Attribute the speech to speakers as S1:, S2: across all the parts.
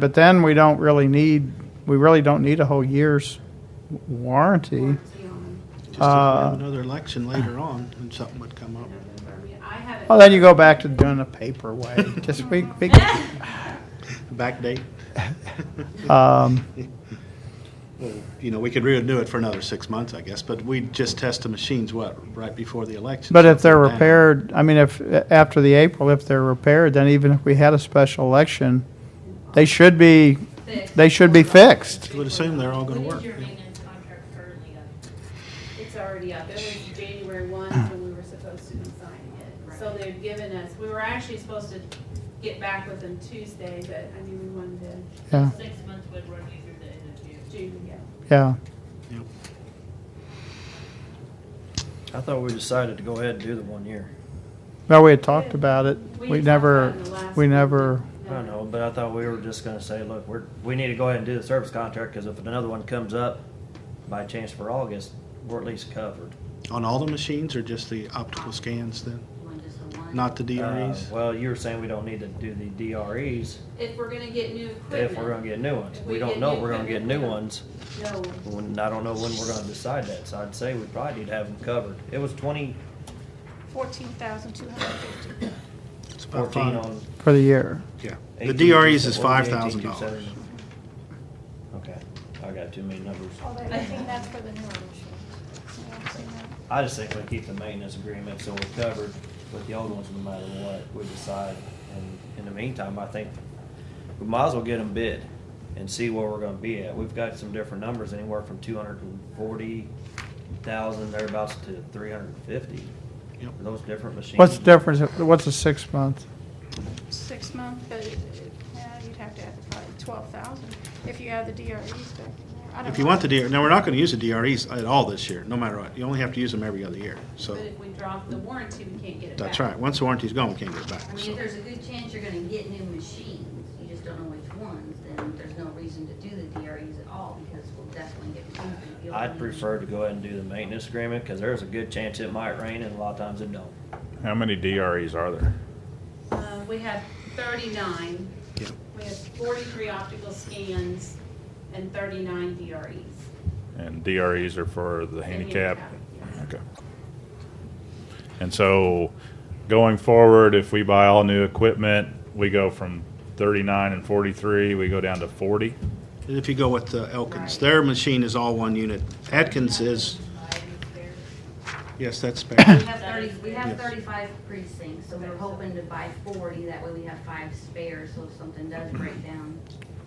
S1: But then we don't really need, we really don't need a whole year's warranty.
S2: Just if we have
S1: Uh,
S2: another election later on, and something would come up.
S1: Well, then you go back to doing the paper way. Just we, we,
S2: Backdate,
S1: um,
S2: well, you know, we could renew it for another six months, I guess, but we just test the machines, what, right before the election?
S1: but if
S2: so
S1: they're
S2: down.
S1: repaired, I mean, if, after the April, if they're repaired, then even if we had a special election, they should be, they should be fixed.
S2: I would assume they're all gonna work.
S3: What is your
S2: yeah.
S3: maintenance contract currently up?
S4: It's already up. It was January one when we were supposed to be signing it. So they've given us, we were actually supposed to get back with them Tuesday, but I mean, we wanted to
S1: Yeah,
S3: Six months would run you through the end of June.
S4: June, yeah.
S1: yeah.
S2: Yep.
S5: I thought we decided to go ahead and do the one year.
S1: No, we had talked about it.
S4: We
S1: We
S4: talked
S1: never,
S4: about it in the last
S1: we
S4: meeting.
S1: never,
S5: I don't know, but I thought we were just gonna say, look, we're, we need to go ahead and do the service contract, cause if another one comes up by chance for August, we're at least covered. Uh,
S2: On all the machines or just the optical scans then? Not the
S5: Uh,
S2: DREs?
S5: Well, you were saying we don't need to do the DREs
S4: If we're gonna get new equipment.
S5: if we're gonna get new ones.
S4: If we
S5: We don't
S4: get
S5: know
S4: new
S5: if we're gonna get new
S4: equipment.
S5: ones,
S4: No,
S5: when, I don't know when we're gonna decide that, so I'd say we probably need to have them covered. It was twenty
S6: fourteen thousand two hundred and fifty.
S2: It's about
S5: fourteen
S2: five-
S5: on.
S1: for the year.
S2: Yeah, the
S5: 18,
S2: DREs is
S5: what
S2: five
S5: was the
S2: thousand
S5: 18,270?
S2: dollars.
S5: Okay, I got too many numbers.
S6: Oh, that, I think that's for the newer machine. Yeah, I've seen that.
S5: I just think we keep the maintenance agreement so we're covered with the old ones no matter what we decide. And in the meantime, I think we might as well get them bid and see where we're gonna be at. We've got some different numbers, anywhere from two hundred and forty thousand thereabouts to three hundred and fifty.
S2: Yep.
S5: Those different machines.
S1: What's the difference? What's a six month?
S6: Six month, but, it- it- yeah, you'd have to add probably twelve thousand if you add the DREs back in there. I don't
S2: If you
S6: know.
S2: want the DR, now, we're not gonna use the DREs at all this year, no matter what. You only have to use them every other year, so.
S4: but if we drop the warranty, we can't get it back.
S2: That's right. Once the warranty's gone, we can't get it back,
S3: I
S2: so.
S3: mean, if there's a good chance you're gonna get new machines, you just don't know which ones, then there's no reason to do the DREs at all, because we'll definitely get. two.
S5: I'd prefer to go ahead and do the maintenance agreement, cause there's a good chance it might rain and a lot of times it don't.
S7: How many DREs are there?
S4: Uh, we have thirty-nine,
S2: Yeah.
S4: we have forty-three optical scans and thirty-nine DREs.
S7: And DREs are for the handicap?
S4: handicap,
S7: Okay. And so going forward, if we buy all new equipment, we go from 39 and 43, we go down to 40?
S2: And if you go with the Elkins, their machine is all one unit. Atkins is, yes, that's
S3: We
S2: spare.
S3: have thirty, we
S2: Yes.
S3: have thirty-five precincts, so we're hoping to buy forty, that way we have five spares, so if something does break down,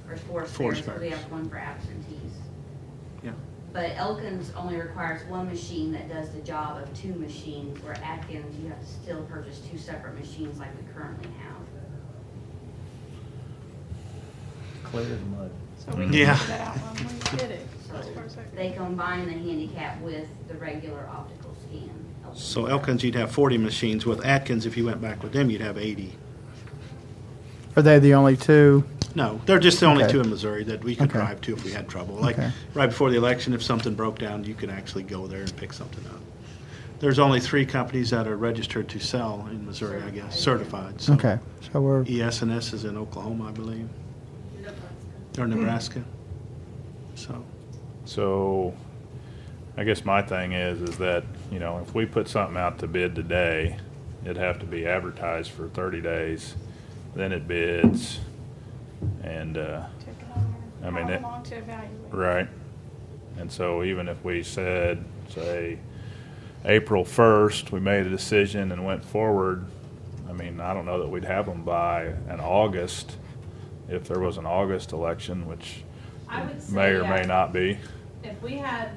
S3: or four
S2: Four
S3: spares, so we
S2: spares.
S3: have one for absentees.
S2: Yeah.
S3: But Elkins only requires one machine that does the job of two machines, where Atkins, you have to still purchase two separate machines like we currently have.
S5: Clear as mud.
S6: So we can
S2: Yeah.
S6: figure that out when we did it. That's where it's at.
S3: They combine the handicap with the regular optical scan.
S2: So Elkins, you'd have forty machines. With Atkins, if you went back with them, you'd have eighty.
S1: Are they the only two?
S2: No, they're just the only
S1: Okay.
S2: two in Missouri that we could
S1: Okay.
S2: drive to if we had trouble. Like,
S1: Okay.
S2: right before the election, if something broke down, you could actually go there and pick something up. There's only three companies that are registered to sell in Missouri, I guess, certified, so. E
S1: Okay, so we're,
S2: ES&S is in Oklahoma, I believe, or Nebraska, so.
S7: So I guess my thing is, is that, you know, if we put something out to bid today, it'd have to be advertised for 30 days, then it bids. And, uh,
S6: Took it on there.
S7: I mean,
S6: How
S7: it-
S6: long to evaluate.
S7: Right. And so even if we said, say, April first, we made a decision and went forward, I mean, I don't know that we'd have them by an August, if there was an August election, which
S4: I would say.
S7: may or may
S4: yeah.
S7: not be.
S4: If we had,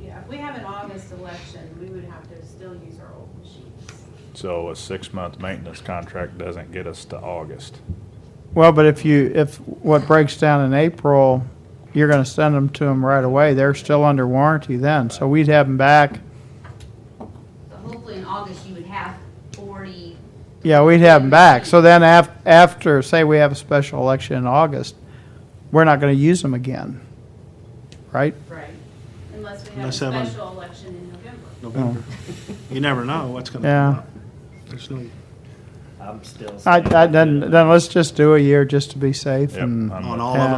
S4: yeah, if we have an August election, we would have to still use our old machines.
S7: So a six-month maintenance contract doesn't get us to August.
S1: well, but if you, if what breaks down in April, you're gonna send them to them right away. They're still under warranty then, so we'd have them back.
S3: So hopefully in August, you would have forty
S1: Yeah, we'd have them back. So then af- after, say we have a special election in August, we're not gonna use them again, right?
S4: Right. Unless we have a
S2: Unless someone-
S4: special election in November.
S2: November. You never know what's gonna
S1: Yeah.
S2: come up. There's no,
S5: I
S8: I'm still.
S5: I, I,
S8: saying-
S5: then, then let's just do a year just to be safe
S1: Yep,
S5: and.
S1: I'm
S7: on
S1: with
S7: all of them.